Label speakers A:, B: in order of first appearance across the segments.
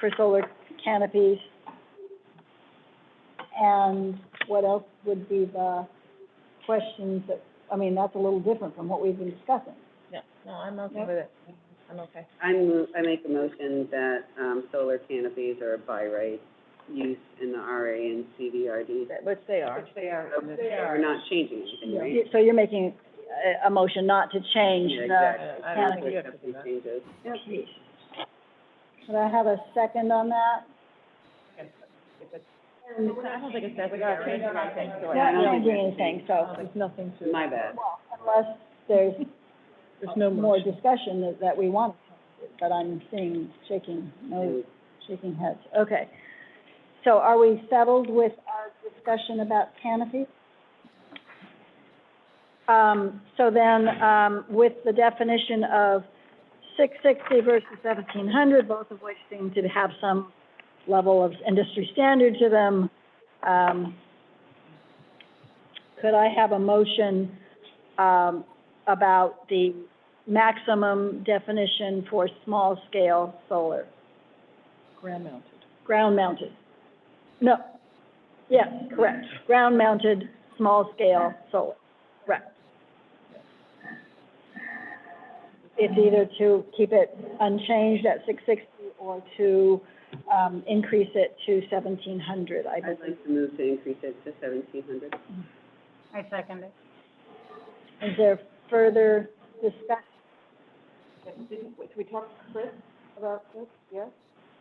A: for solar canopies. And what else would be the questions that, I mean, that's a little different from what we've been discussing.
B: Yeah, no, I'm okay
A: Yep.
B: with it. I'm okay.
C: I move, I make a motion that, um, solar canopies are by right use in the RA and CVRD.
B: That- Which they are.
C: they are. We're not changing anything, right?
A: So you're making a, a motion not to change
C: Yeah,
A: the
C: exactly.
B: I don't think
C: With
B: you have to do
C: these
B: that.
C: changes.
A: piece. Could I have a second on that?
B: I don't think it's necessary. We gotta change anything, so Oh,
C: Yeah,
B: I
A: Not
C: I don't think
A: changing
C: that's-
A: anything, so,
B: There's nothing to.
C: My bad.
A: well, unless there's
B: There's no
A: more
B: motion.
A: discussion that, that we want, but I'm seeing shaking, no, shaking heads, okay. So are we settled with our discussion about canopy? Um, so then, um, with the definition of six sixty versus seventeen hundred, both of which seem to have some level of industry standard to them, um, could I have a motion, um, about the maximum definition for small-scale solar,
B: Ground mounted.
A: ground-mounted. No, yes, correct, ground-mounted, small-scale solar, correct. It's either to keep it unchanged at six sixty or to, um, increase it to seventeen hundred, I
C: I'd
A: believe.
C: like to move to increase it to seventeen hundred.
A: I second it. Is there further discussion?
B: we talk to Chris about this? Yes.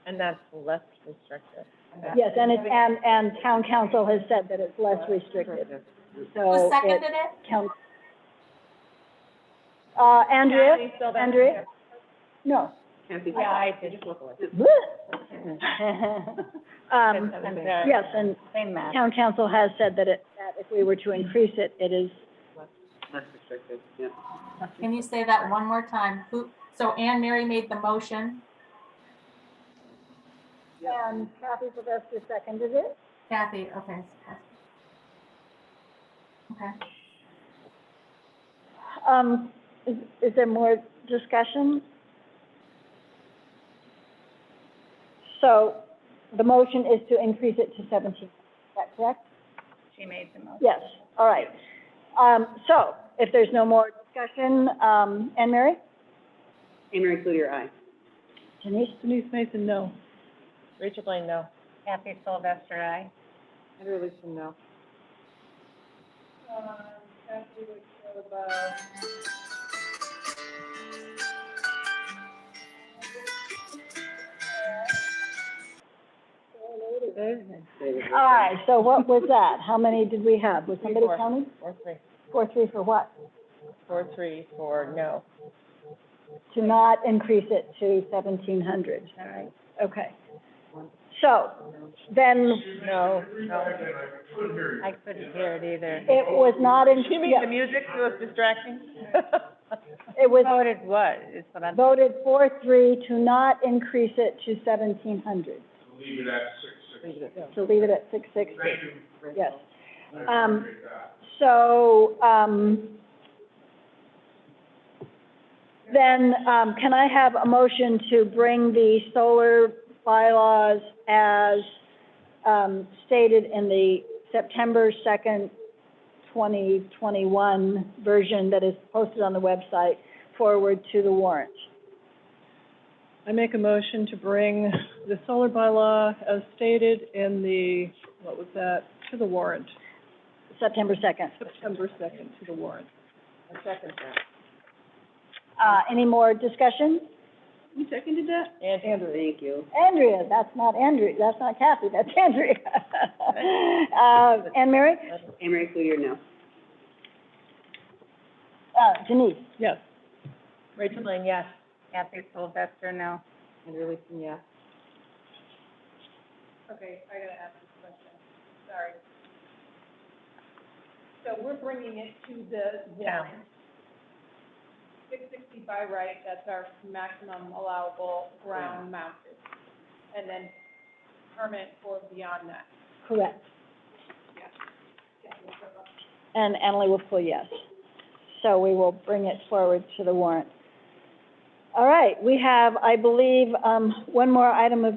B: And that's less restrictive.
A: Yes, and it's, and, and town council has said that it's less restricted, so.
D: Who
A: it
D: seconded it?
A: counts. Uh, Andrea?
B: Kathy, so that's-
A: Andrea? No.
C: Kathy?
B: I did. Yes,
A: Bleh. Um, yes, and town council has said that it, that if we were to increase it, it is,
C: Less restricted, yeah.
D: Can you say that one more time? Who, so Anne Mary made the motion,
A: and Kathy Sylvester seconded it.
D: Kathy, okay. Okay,
A: Um, is, is there more discussion? So the motion is to increase it to seventeen, is that correct? She made the motion. Yes, all right. Um, so if there's no more discussion, um, Anne Mary?
C: Anne Marie Cloutier, aye.
A: Denise?
B: Denise Mason, no. Rachel Blaine, no.
E: Kathy Sylvester, aye.
B: Heather Lichtenstein, no.
C: David.
A: All
B: Uh,
A: right, so what was that? How many did we have? Was
B: Three,
A: somebody
B: four.
A: counting?
B: Four, three.
A: Four, three for what?
B: Four, three, four, no.
A: to not increase it to seventeen hundred. All right. Okay. So, then
B: No, no.
E: I couldn't hear it either.
A: it was not in,
B: You mean the music was distracting?
A: it
B: Oh,
A: was
E: Voted what, is what I'm,
A: voted four, three to not increase it to seventeen hundred, to leave it at six sixty. Yes. Um, so, um, then, um, can I have a motion to bring the solar bylaws as, um, stated in the September second, twenty twenty-one version that is posted on the website forward to the warrant?
F: I make a motion to bring the solar bylaw as stated in the, what was that, to the warrant,
A: September second.
F: September second to the warrant.
A: Uh, any more discussion?
C: You seconded that?
B: Andrew,
C: Thank you.
A: Andrea, that's not Andrea, that's not Kathy, that's Andrea. Uh, Anne Mary?
C: Anne Marie Cloutier, no.
A: Uh, Denise?
F: Yes.
B: Rachel Blaine, yes.
E: Kathy Sylvester, no.
B: Andrew Leeson, yes. Yeah.
G: six sixty by right, that's our maximum allowable ground mounted. And then permit for beyond that.
A: Correct. And Emily will pull yes. So we will bring it forward to the warrant. All right, we have, I believe, um, one more item of